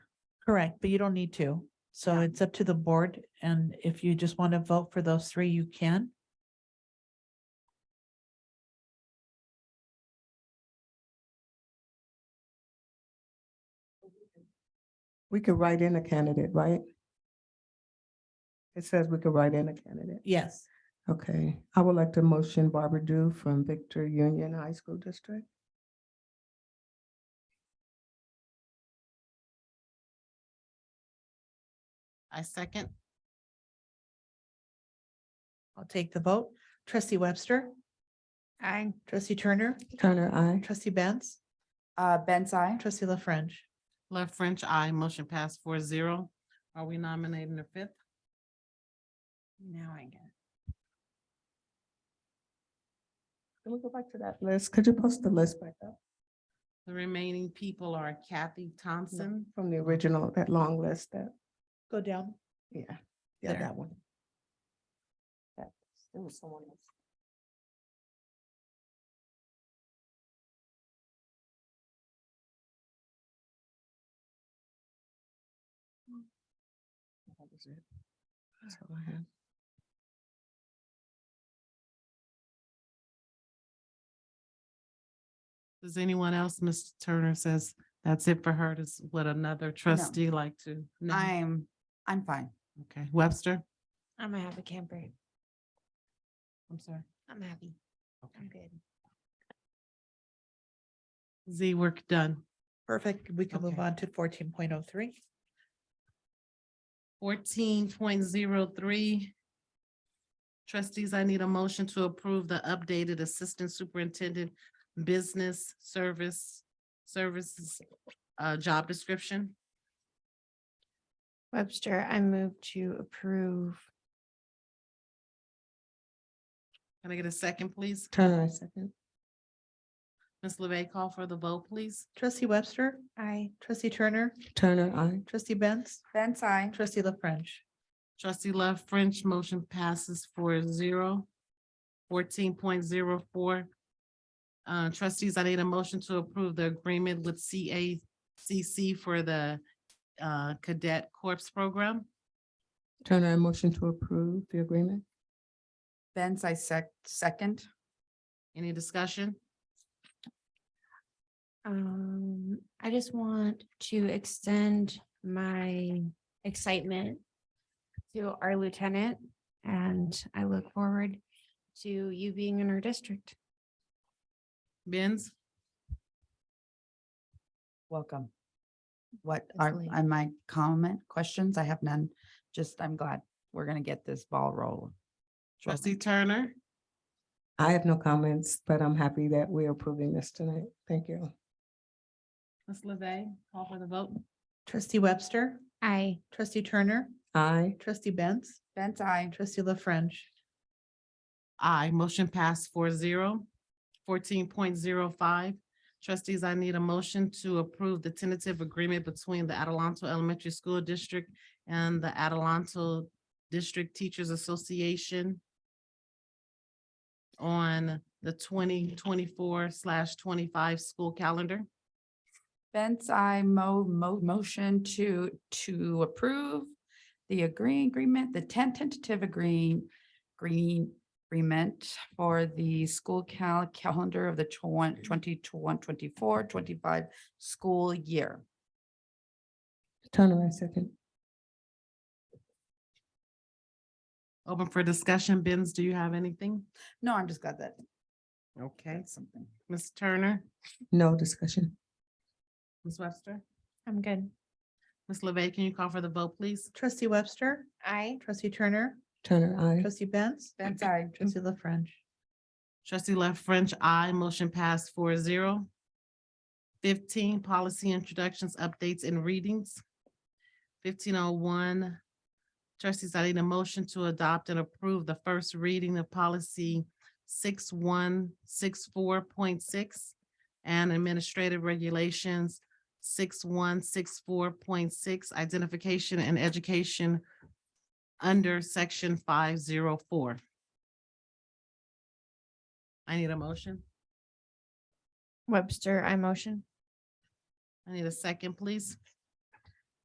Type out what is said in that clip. Correct, but you don't need to. So Yeah. it's up to the board. And if you just want to vote for those three, you can. We could write in a candidate, right? It says we could write in a candidate. Yes. Okay, I would like to motion Barbara Dew from Victor Union High School District. I second. I'll take the vote. Trustee Webster, I. trustee Turner, Turner, I. trustee Benz, Uh, Benz, I. trustee La French. Love French, I. Motion pass four zero. Are we nominating the fifth? Now I get. Can we go back to that list? Could you post the list back up The remaining people are Kathy Thompson, from the original, that long list that, Go down. yeah, yeah, There. that one. That- There was someone else. That was it. That's all I have. Does anyone else, Mr. Turner says, that's it for her, does what another trustee like to? No? I'm, I'm fine. Okay, Webster? I'm a happy camper. I'm sorry. I'm happy. I'm Okay. good. Z, work done. Perfect. We can move Okay. on to fourteen point oh three. Fourteen point zero three. Trustees, I need a motion to approve the updated Assistant Superintendent Business Service Services uh, job description. Webster, I move to approve. Can I get a second, please? Turner, I second. Ms. LeVey, call for the vote, please. Trustee Webster, I, trustee Turner, Turner, I. trustee Benz, Benz, I. trustee La French. Trustee Love French, motion passes four zero. Fourteen point zero four. Uh, trustees, I need a motion to approve the agreement with CACC for the uh, Cadet Corps Program. Turner, I motion to approve the agreement. Benz, I sec, second. Any discussion? um, I just want to extend my excitement to our lieutenant, and I look forward to you being in our district. Benz, Welcome. What are, Absolutely. on my comment, questions? I have none. Just, I'm glad we're gonna get this ball rolling. trustee Turner, I have no comments, but I'm happy that we're approving this tonight. Thank you. Ms. LeVey, call for the vote. Trustee Webster, I, trustee Turner, I. trustee Benz, Benz, I. trustee La French. Aye, motion passed four zero. Fourteen point zero five. Trustees, I need a motion to approve the tentative agreement between the Adelanto Elementary School District and the Adelanto District Teachers Association on the twenty twenty-four slash twenty-five school calendar. Benz, I mo, mo, motion to, to approve the agree agreement, the ten tentative agreeing, green agreement for the school cal, calendar of the twen- 20 to 1, 24, 25 school year. Turner, I second. Open for discussion. Benz, do you have anything? No, I'm just glad that. Okay. that's Something. Ms. Turner, No discussion. Ms. Webster, I'm good. Ms. LeVey, can you call for the vote, please? Trustee Webster, I, trustee Turner, Turner, I. trustee Benz, Benz, I. trustee La French. Trustee Left French, I motion passed four zero. Fifteen, policy introductions, updates and readings. Fifteen oh one. Trustees, I need a motion to adopt and approve the first reading of policy six one six four point six and administrative regulations six one six four point six, identification and education under section five zero four. I need a motion. Webster, I motion. I need a second, please.